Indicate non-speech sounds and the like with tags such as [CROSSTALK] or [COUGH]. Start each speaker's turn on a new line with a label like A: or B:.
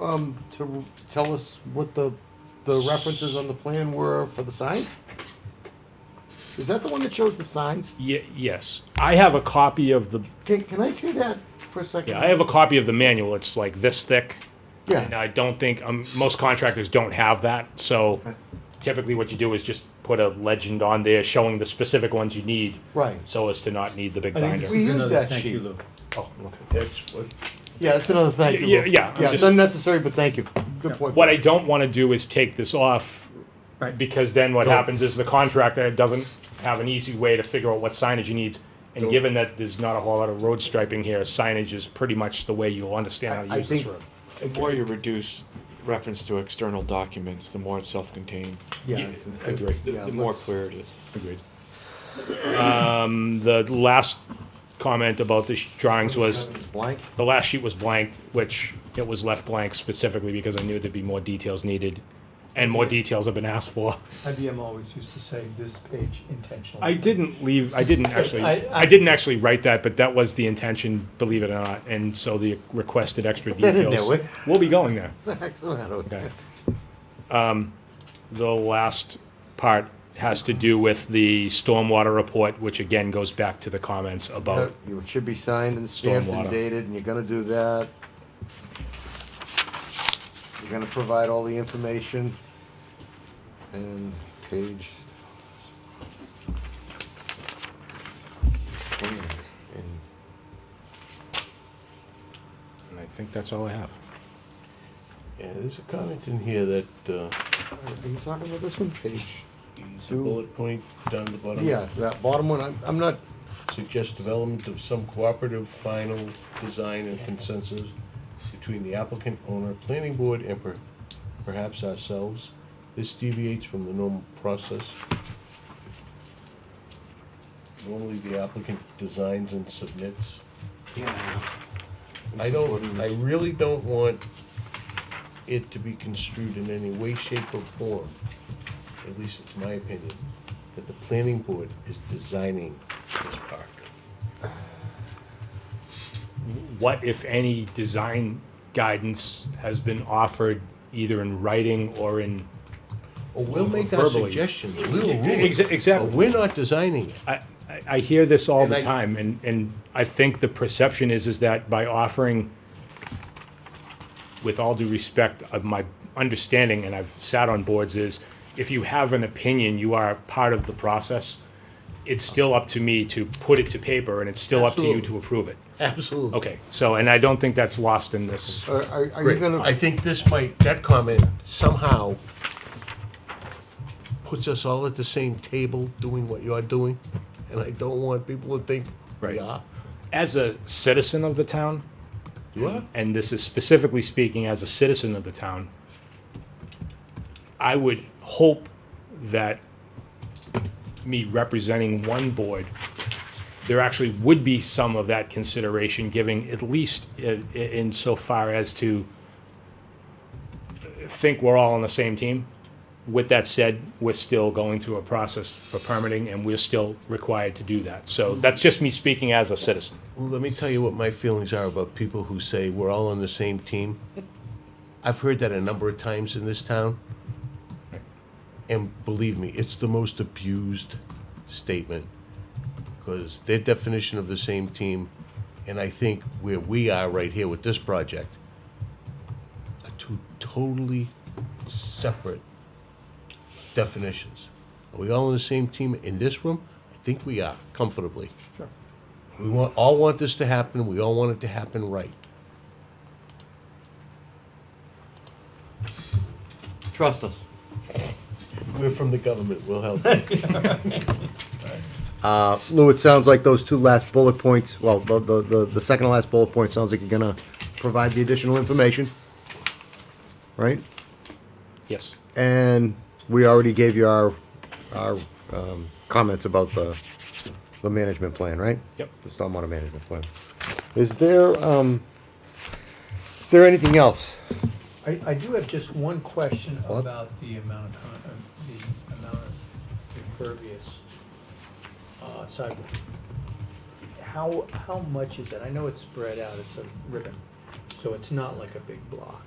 A: um, to tell us what the, the references on the plan were for the signs? Is that the one that shows the signs?
B: Ye- yes, I have a copy of the.
A: Can, can I see that for a second?
B: Yeah, I have a copy of the manual. It's like this thick. And
A: Yeah,
B: I don't think um, most contractors don't have that. So
A: Okay.
B: typically, what you do is just put a legend on there showing the specific ones you need,
A: right.
B: so as to not need the big
C: I think this
B: binder.
A: We
C: is
A: use
C: another
A: that
C: thank you,
A: sheet.
C: Lou.
B: Oh, okay.
C: That's what,
A: Yeah, that's another thank you.
B: Yeah,
A: Lou.
B: yeah,
A: Yeah,
B: I'm
A: it's
B: just-
A: unnecessary, but thank you. Good point.
B: What I don't want to do is take this off,
C: Right.
B: because then what happens is the contractor doesn't have an easy way to figure out what signage he needs. And given that there's not a whole lot of road striping here, signage is pretty much the way you'll understand how
A: I- I
B: to use this
A: think-
B: road.
A: Okay.
D: The more you reduce reference to external documents, the more it's self-contained.
A: Yeah.
B: I agree.
D: The-
A: Yeah,
D: The more
A: let's-
D: clear it is.
B: Agreed. Um, the last comment about the drawings was,
A: [LAUGHS] Blank?
B: the last sheet was blank, which it was left blank specifically because I knew there'd be more details needed. And more details have been asked for.
E: IBM always used to say this page intentionally.
B: I didn't leave, I didn't actually,
E: I- I-
B: I didn't actually write that, but that was the intention, believe it or not. And so the requested extra
A: They didn't know
B: details.
A: it.
B: We'll be going there.
A: Okay.
B: Okay. Um, The last part has to do with the stormwater report, which again goes back to the comments
A: Uh,
B: about
A: It should be signed and stamped and
B: Stormwater.
A: dated, and you're gonna do that. You're gonna provide all the information. And page. plans and-
B: And I think that's all I have.
F: Yeah, there's a comment in here that, uh,
A: Are you talking about this one, page?
F: the bullet point down the bottom.
A: Yeah, that bottom one, I'm, I'm not,
F: Suggests development of some cooperative final design and consensus between the applicant, owner, planning board, and per- perhaps ourselves. This deviates from the normal process. Normally, the applicant designs and submits. I don't, I really don't want it to be construed in any way, shape, or form, at least it's my opinion, that the planning board is designing this park.
B: What, if any, design guidance has been offered either in writing or in?
F: Or we'll make our
B: Verbally.
F: suggestions, we'll rule
B: Ex-
F: it, but
B: Exactly.
F: we're not designing it.
B: I, I- I hear this all the
F: And I-
B: time, and, and I think the perception is, is that by offering, with all due respect of my understanding, and I've sat on boards, is if you have an opinion, you are part of the process. It's still up to me to put it to paper, and it's still up to you to
F: Absolutely.
B: approve it.
F: Absolutely.
B: Okay, so, and I don't think that's lost in this.
A: are, are- are you
F: Great.
A: gonna?
F: I think this might, that comment somehow puts us all at the same table doing what you're doing, and I don't want people to think,
B: Right.
F: yeah,
B: As a citizen of the town,
F: you are.
B: and this is specifically speaking as a citizen of the town, I would hope that me representing one board, there actually would be some of that consideration giving, at least in, in so far as to think we're all on the same team. With that said, we're still going through a process for permitting and we're still required to do that. So that's just me speaking as a citizen.
F: Well, let me tell you what my feelings are about people who say we're all on the same team. I've heard that a number of times in this town. And believe me, it's the most abused statement because their definition of the same team, and I think where we are right here with this project, are two totally separate definitions. Are we all on the same team in this room? I think we are comfortably. We want, all want this to happen, we all want it to happen right.
A: Trust us.
F: We're from the government, we'll help. you.
A: Lou, it sounds like those two last bullet points, well, the, the, the, the second to last bullet point sounds like you're gonna provide the additional information. Right?
B: Yes.
A: And we already gave you our, our, um, comments about the, the management plan, right?
B: Yep.
A: The stormwater management plan. Is there, um, is there anything else?
E: I, I do have just one question
A: What?
E: about the amount, of- uh, the amount of impervious uh, sidewalk. How, how much is that? I know it's spread out, it's a ribbon, so it's not like a big block.